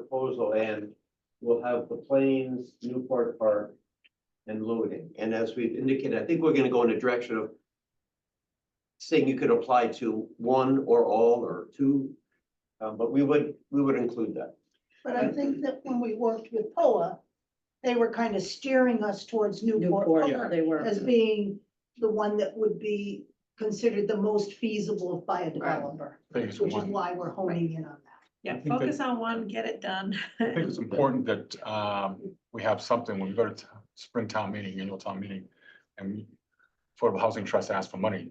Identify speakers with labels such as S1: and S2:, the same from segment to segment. S1: proposal and we'll have the Plains, Newport Park and Lewis. And as we've indicated, I think we're gonna go in the direction of saying you could apply to one or all or two, uh, but we would, we would include that.
S2: But I think that when we worked with POA, they were kind of steering us towards Newport
S3: Newport,
S2: Park
S3: they were.
S2: as being the one that would be considered the most feasible by a developer,
S4: Phase
S2: which is
S4: one.
S2: why we're honing in on that.
S4: I
S5: Yeah,
S4: think that-
S5: focus on one, get it done.
S4: I think it's important that um, we have something when we go to t- spring town meeting, annual town meeting, and Affordable Housing Trust asks for money.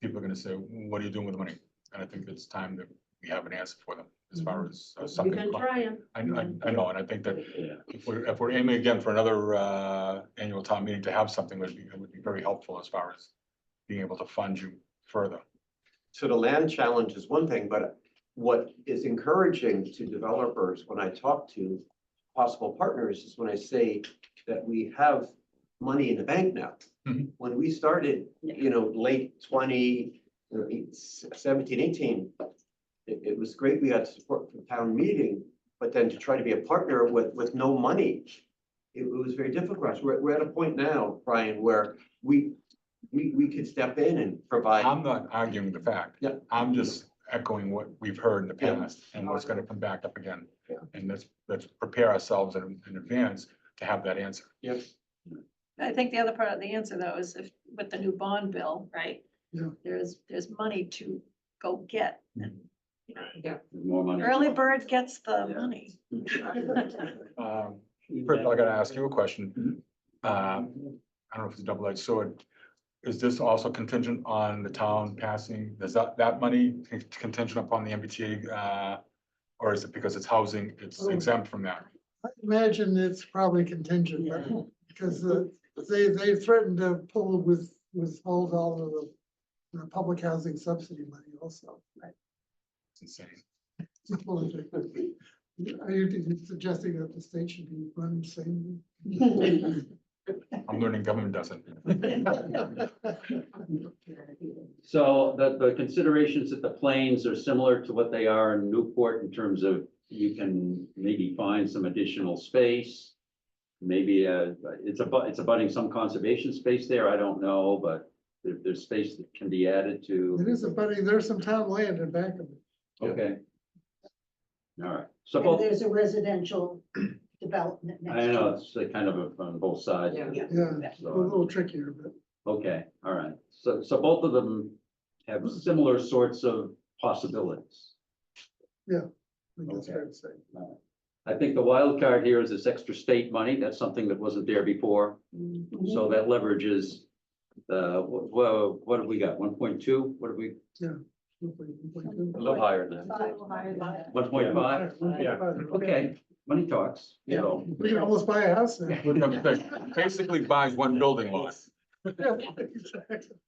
S4: People are gonna say, what are you doing with the money? And I think it's time that we have an answer for them as
S5: Mm-hmm.
S4: far as uh,
S3: We've
S4: something.
S3: been trying.
S4: I, I, I know, and I think that
S1: Yeah.
S4: if we're, if we're aiming again for another uh, annual town meeting to have something, would be, it would be very helpful as far as being able to fund you further.
S1: So the land challenge is one thing, but what is encouraging to developers when I talk to possible partners is when I say that we have money in the bank now.
S4: Mhm.
S1: When we started, you know, late twenty, you know, eight- seventeen, eighteen, it, it was great. We got support from town meeting, but then to try to be a partner with, with no money, it was very difficult. We're, we're at a point now, Brian, where we, we, we could step in and provide.
S4: I'm not arguing the fact.
S1: Yeah.
S4: I'm just echoing what we've heard in the
S1: Yeah.
S4: past and what's gonna come back up again.
S1: Yeah.
S4: And let's, let's prepare ourselves in, in advance to have that answer.
S5: I think the other part of the answer though is if, with the new bond bill, right?
S2: Yeah.
S5: There's, there's money to go get.
S6: More money.
S5: Early bird gets the money.
S4: Um, First, I gotta ask you a
S1: Mm-hmm.
S4: question. Um, I don't know if it's a double edged sword. Is this also contingent on the town passing, is that, that money contingent upon the MBTA? uh, Or is it because it's housing,
S1: Oh.
S4: it's exempt from that?
S7: I Imagine it's probably contingent, but- because uh, they, they threatened to pull with, withhold all of the, the public housing subsidy money also.
S4: It's insane.
S7: Are you suggesting that the state should be running the same?
S4: I'm learning government doesn't.
S6: So the, the considerations that the planes are similar to what they are in Newport in terms of you can maybe find some additional space. Maybe uh it's a, it's abutting some conservation space there. I don't know, but there, there's space that can be added
S7: It
S6: to,
S7: is a buddy, there's some town land in back of it.
S6: okay. All right, so
S2: And
S6: both,
S2: there's a residential development next
S6: I
S2: to
S6: know,
S2: it.
S6: it's uh, kind of a- on both sides.
S3: Yeah.
S7: Yeah, a
S6: So-
S7: little trickier, but
S6: Okay, all right. So, so both of them have similar sorts of possibilities.
S7: I think that's fair to say.
S6: I think the wild card here is this extra state money. That's something that wasn't there before.
S2: Mm-hmm.
S6: So that leverages the, whoa, what have we got? One point two? What have we,
S1: A little higher than that.
S2: Five, five, five.
S6: one point five?
S7: Yeah.
S6: Okay, money talks, you know.
S7: We can almost buy a house now.
S4: Basically buys one building lot.
S7: Yeah, exactly.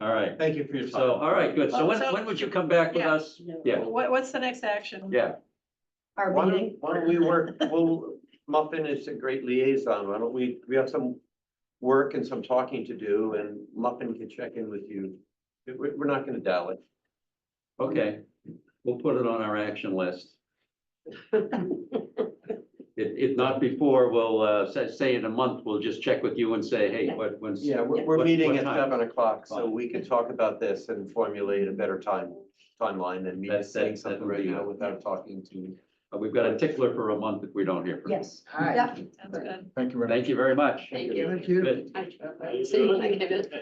S6: All right.
S1: Thank you for your
S6: So, all right, good. So when, when would you come back with
S5: Yeah.
S6: us? Yeah,
S5: What, what's the next action?
S6: yeah.
S2: Mm-hmm. Our
S1: Why
S2: meeting.
S1: don't, why don't we work, well, Muffin is a great liaison, why don't we, we have some work and some talking to do, and Muffin can check in with you. We- we- we're not gonna dial it.
S6: Okay, we'll put it on our action list. If, if not before, we'll, uh, say, say in a month, we'll just check with you and say, hey, what, when's?
S1: Yeah, we're, we're
S6: What-
S1: meeting
S6: what
S1: at
S6: time?
S1: seven o'clock, so
S6: Fine.
S1: we can talk about this and formulate a better time, timeline than me
S6: That-
S1: just saying
S6: that- that
S1: something
S6: would
S1: right
S6: be-
S1: now without talking to.
S6: Uh, We've got a tickler for a month if we don't hear from you.
S2: Yes.
S5: Yeah, sounds good.
S4: Thank you very much.
S6: Thank you very much.
S3: Thank you.
S7: Thank you.
S6: Good.
S3: I- See, I can have it.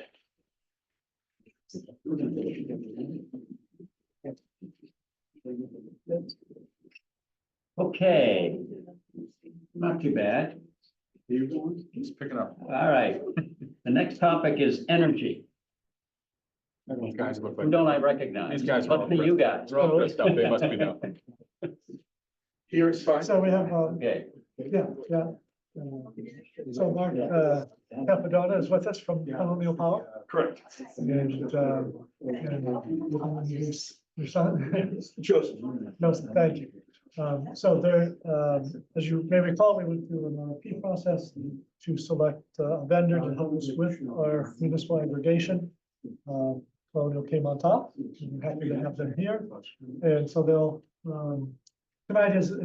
S6: Okay, not too bad.
S4: He's picking up.
S6: All right, the next topic is energy.
S4: These guys look
S6: Who
S4: like-
S6: don't I recognize?
S4: These guys are all
S6: Must be you guys.
S4: They're all dressed up. They must be now.
S7: Here is fine. So we have, uh,
S6: Okay,
S7: yeah, yeah. Uh, So Mark, uh, Capadonna is with us from Colonial Power.
S8: Correct.
S7: And, uh, and uh, his- your son,
S8: Joseph.
S7: no, thank you. Um, so there, um, as you may recall, we went through an RFP process to select uh, a vendor to help us with our municipal aggregation. Um, Colonial came on top, and I'm happy to have them here, and so they'll, um, tonight is,